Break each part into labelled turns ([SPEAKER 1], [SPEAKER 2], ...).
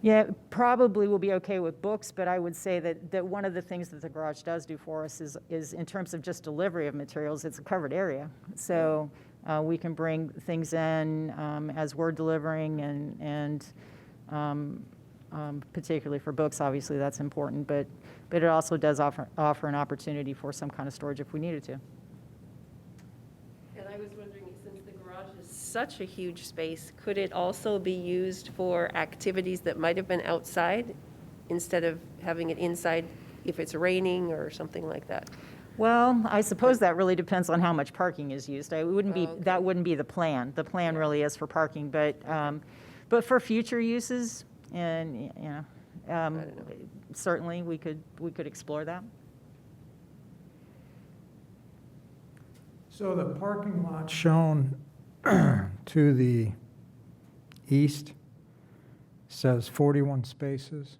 [SPEAKER 1] Yeah, probably we'll be okay with books, but I would say that, that one of the things that the garage does do for us is, is in terms of just delivery of materials, it's a covered area. So uh, we can bring things in um, as we're delivering and, and um, um, particularly for books, obviously that's important, but, but it also does offer, offer an opportunity for some kind of storage if we needed to.
[SPEAKER 2] And I was wondering, since the garage is such a huge space, could it also be used for activities that might have been outside instead of having it inside if it's raining or something like that?
[SPEAKER 1] Well, I suppose that really depends on how much parking is used. I wouldn't be,
[SPEAKER 2] Oh, okay.
[SPEAKER 1] that wouldn't be the plan. The plan really is for parking, but, um, but for future uses and, y- you know, um,
[SPEAKER 2] don't know.
[SPEAKER 1] certainly we could, we could explore that.
[SPEAKER 3] So the parking lot shown to the east says 41 spaces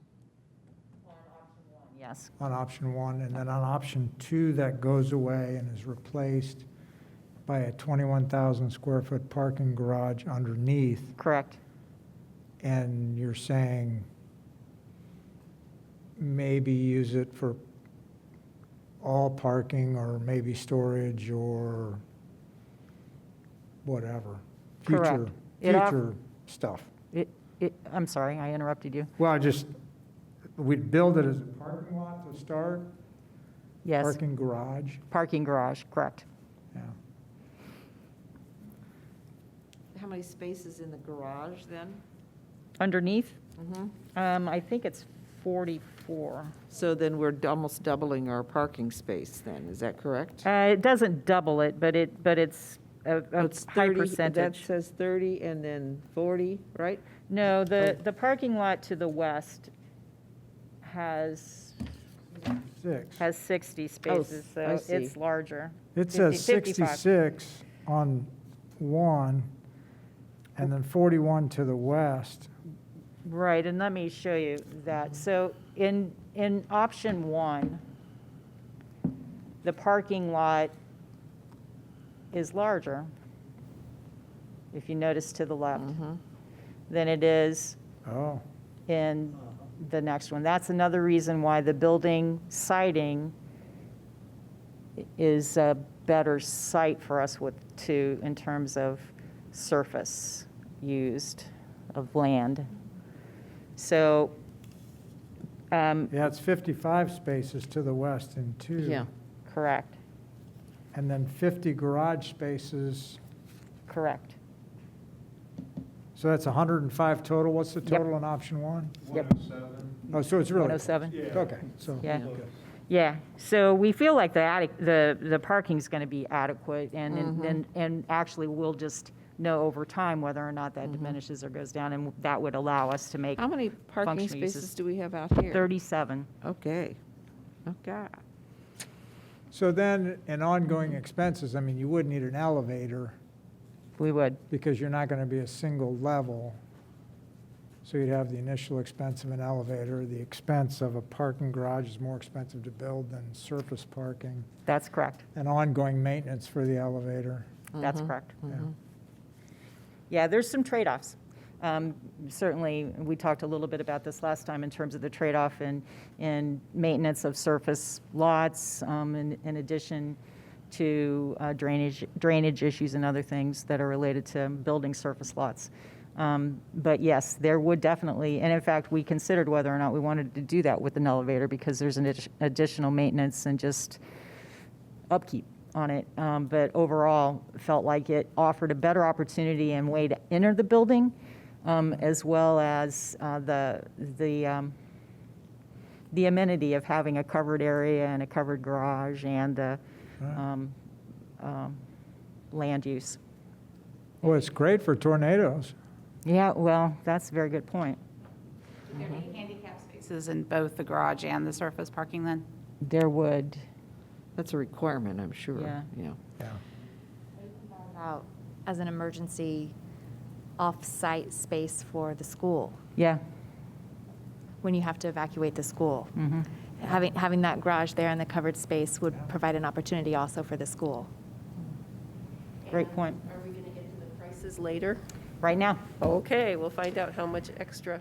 [SPEAKER 1] Yes.
[SPEAKER 3] on option one, and then on option two, that goes away and is replaced by a 21,000 square foot parking garage underneath,
[SPEAKER 1] Correct.
[SPEAKER 3] and you're saying maybe use it for all parking or maybe storage or whatever. Future,
[SPEAKER 1] Correct. It off-
[SPEAKER 3] future stuff.
[SPEAKER 1] It, it, I'm sorry, I interrupted you.
[SPEAKER 3] Well, I just, we'd build it as a parking lot to start,
[SPEAKER 1] Yes,
[SPEAKER 3] parking garage,
[SPEAKER 1] parking garage, correct.
[SPEAKER 3] yeah.
[SPEAKER 4] How many spaces in the garage then?
[SPEAKER 1] Underneath, um, I think it's 44.
[SPEAKER 4] So then we're d- almost doubling our parking space then, is that correct?
[SPEAKER 1] Uh, it doesn't double it, but it, but it's a, a
[SPEAKER 5] It's
[SPEAKER 1] high
[SPEAKER 5] 30 That
[SPEAKER 1] percentage.
[SPEAKER 5] says 30 and then 40, right?
[SPEAKER 1] No, the, the parking lot to the west has,
[SPEAKER 3] Six.
[SPEAKER 1] has 60 spaces,
[SPEAKER 5] I
[SPEAKER 1] so it's
[SPEAKER 5] see.
[SPEAKER 1] larger.
[SPEAKER 3] It says
[SPEAKER 1] 50, 55.
[SPEAKER 3] 66 on one, and then 41 to the west.
[SPEAKER 1] Right, and let me show you that. So in, in option one, the parking lot is larger, if you notice to the left,
[SPEAKER 5] Mm-hmm.
[SPEAKER 1] than it is
[SPEAKER 3] Oh,
[SPEAKER 1] in the next one. That's another reason why the building siding i- is a better site for us with, to, in terms of surface used of land. So, um,
[SPEAKER 3] yeah, it's 55 spaces to the west in two.
[SPEAKER 5] Yeah.
[SPEAKER 1] correct,
[SPEAKER 3] And then 50 garage spaces,
[SPEAKER 1] correct.
[SPEAKER 3] so that's 105 total. What's the
[SPEAKER 1] Yep.
[SPEAKER 3] total on option one?
[SPEAKER 1] Yep.
[SPEAKER 6] 107.
[SPEAKER 3] Oh, so it's really.
[SPEAKER 1] 107?
[SPEAKER 3] close. Okay, so.
[SPEAKER 1] Yeah. Yeah, so we feel like the attic, the, the parking's gonna be adequate, and, and- and, and actually, we'll just know over time whether or not that diminishes or goes down, and that would allow us to make
[SPEAKER 5] How many parking
[SPEAKER 1] Functional uses.
[SPEAKER 5] spaces do we have out here?
[SPEAKER 1] thirty-seven.
[SPEAKER 5] Okay, okay.
[SPEAKER 3] So then, in ongoing expenses, I mean, you would need an elevator.
[SPEAKER 1] We would,
[SPEAKER 3] because you're not going to be a single level. So you'd have the initial expense of an elevator, the expense of a parking garage is more expensive to build than surface parking,
[SPEAKER 1] that's correct,
[SPEAKER 3] and ongoing maintenance for the elevator.
[SPEAKER 1] that's correct.
[SPEAKER 3] Yeah.
[SPEAKER 1] Yeah, there's some trade-offs. Um, Certainly, we talked a little bit about this last time in terms of the trade-off in, in maintenance of surface lots, um, in in addition to uh, drainage, drainage issues and other things that are related to building surface lots. Um, But yes, there would definitely, and in fact, we considered whether or not we wanted to do that with an elevator because there's an addi- additional maintenance and just, upkeep on it, um, but overall felt like it offered a better opportunity and way to enter the building, um, as well as uh, the the um, the amenity of having a covered area and a covered garage and the
[SPEAKER 3] Right.
[SPEAKER 1] um, um, land use.
[SPEAKER 3] Well, it's great for tornadoes.
[SPEAKER 1] Yeah, well, that's a very good point.
[SPEAKER 7] There'd be handicap spaces in both the garage and the surface parking then?
[SPEAKER 1] There would,
[SPEAKER 5] That's a requirement, I'm sure,
[SPEAKER 1] Yeah.
[SPEAKER 5] yeah.
[SPEAKER 3] Yeah.
[SPEAKER 8] about as an emergency off-site space for the school,
[SPEAKER 1] yeah,
[SPEAKER 8] when you have to evacuate the school.
[SPEAKER 1] mhm,
[SPEAKER 8] Having, having that garage there and the covered space would provide an opportunity also for the school.
[SPEAKER 1] great point.
[SPEAKER 2] Are we going to get to the prices later?
[SPEAKER 1] Right now,
[SPEAKER 2] Okay, we'll find out how much extra